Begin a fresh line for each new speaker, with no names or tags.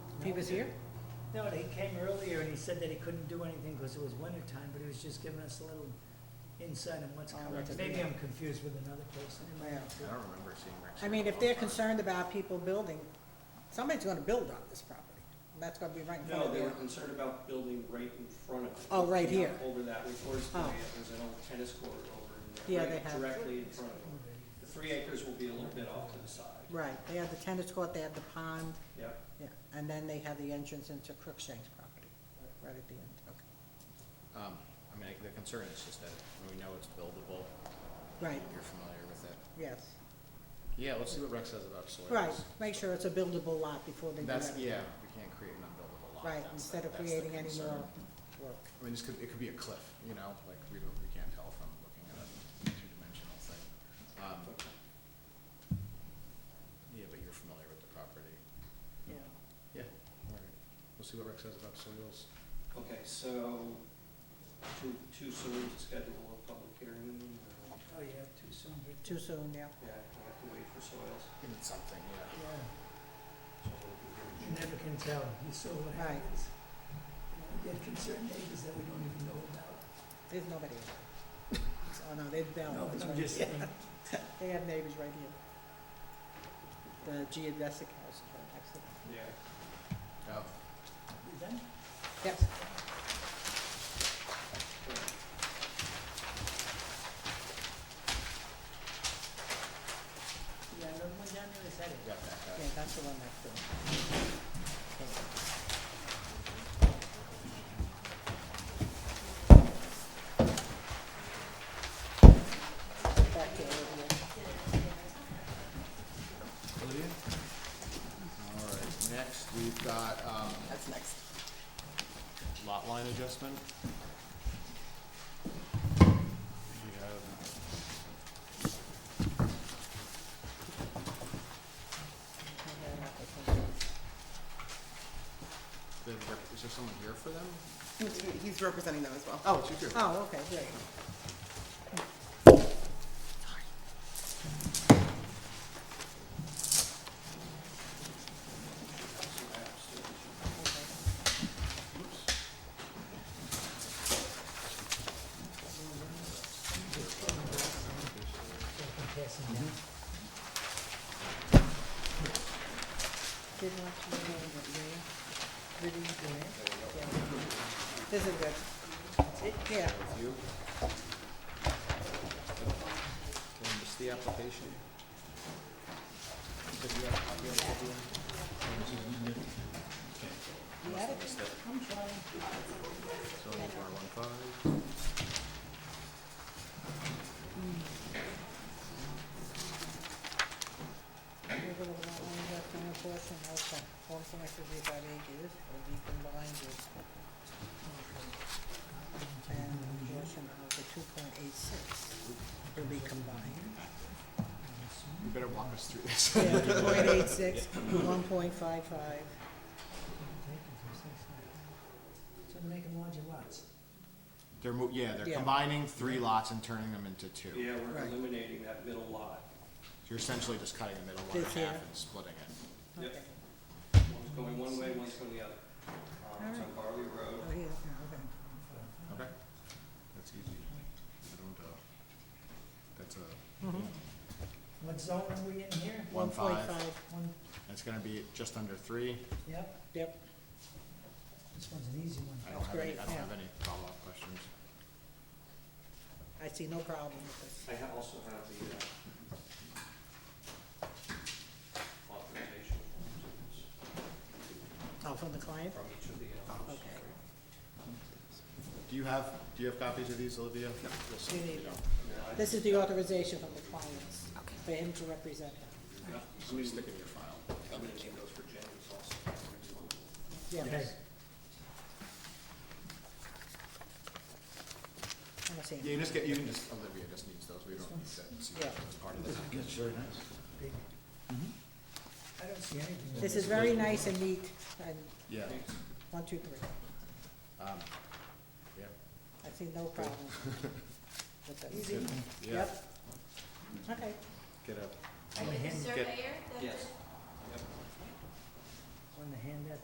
He was here?
No, he came earlier and he said that he couldn't do anything because it was winter time, but he was just giving us a little insight on what's
Oh,
coming.
what to do.
Maybe I'm confused with another person.
Yeah.
I don't remember seeing Rex.
I mean, if they're concerned about people building, somebody's gonna build on this property. And that's gonna be right in front
No,
of
they were
you.
concerned about building right in front of it.
Oh, right
You know,
here.
Over that, way towards the,
Oh.
there's an old tennis court over in
Yeah,
there,
they
right
have.
directly in front of it. The three acres will be a little bit off to the side.
Right, they had the tennis court, they had the pond,
Yep.
yeah, and then they had the entrance into Crookshank's property, right at the end, okay.
Um, I mean, the concern is just that we know it's buildable.
Right,
You're familiar with it.
yes,
Yeah, let's see what Rex says about soils.
right, make sure it's a buildable lot before they do
That's,
anything.
yeah, we can't create an unbuildable lot.
Right,
That's
instead
the-
of
that's the
creating any
concern.
more work.
I mean, this could, it could be a cliff, you know, like we don't, we can't tell from looking at a two-dimensional thing. Um, yeah, but you're familiar with the property.
Yeah.
Yeah. All right. We'll see what Rex says about soils.
Okay, so too, too soon to schedule a public hearing? or-
Oh, yeah, too soon, but.
Too soon, yeah.
Yeah, we have to wait for soils.
Give it something,
Yeah,
yeah.
So
you never can tell. You saw what
Right.
happens. You know, We get concerned neighbors that we don't even know about.
There's nobody in there. Oh, no, they've been,
No,
it's
I'm
right
just
here.
saying.
They have neighbors right here. The geodesic house is right next to them.
Yeah.
Oh,
You done?
Yes,
Yeah, another one down there, is that it?
we got that guy.
yeah, that's the one next to them. Back to Olivia.
Olivia? All right, next, we've got, um,
That's next.
lot line adjustment. We have the rep- is there someone here for them?
He's representing them as well.
Oh, it's you two.
Oh, okay, yeah, yeah.
I'm passing down.
Didn't want you to know that Leah, really, yeah. This is good. Yeah,
With you. Can you see the application? Did you have a copy of the other one?
the attitude, I'm trying.
So, four one five.
Move a little along that final portion, okay. Form selected three five eight is, or be combined with. And the portion of the two point eight six will be combined.
You better walk us through this.
Yeah, two point eight six, one point five five.
So they're making larger lots.
They're mo- yeah, they're
Yeah.
combining three lots and turning them into two.
Yeah, we're
Right.
eliminating that middle lot.
You're essentially just cutting the middle one in
This
half
here.
and splitting it.
Yep.
Okay.
One's going one way, one's going the other. Um, It's on Barley Road.
Oh, here, yeah, okay.
Okay. That's easy. I don't, uh, that's uh, a,
Mm-hmm.
What zone are we in here?
One
point
five.
five,
One,
that's gonna be just under three.
yep,
yep,
this one's an easy one.
I don't have any, I
great,
don't
yeah.
have any follow-up questions.
I see no problem with this.
I ha- also have the uh, authorization forms
Oh, from the client?
from each of the items.
Okay.
Do you have, do you have copies of these, Olivia? No.
You need them.
Yeah, I-
This is the authorization from the clients, for him to represent him.
I'm gonna stick in your file. I'm gonna take those for James also.
Yeah,
Okay.
I'm gonna say,
Yeah, you just get, you can just, Olivia just needs those, we don't need that, see,
Yeah.
that's part of the package. Very nice.
Big. I don't see anything.
Mm-hmm. this is very nice and neat, and
Yeah, Um,
one, two, three,
yeah.
I see no problem with this.
Easy.
Yeah,
Yep. Okay,
get a
On the hand,
Surveyor? that's
Yes. Yep.
on the hand, that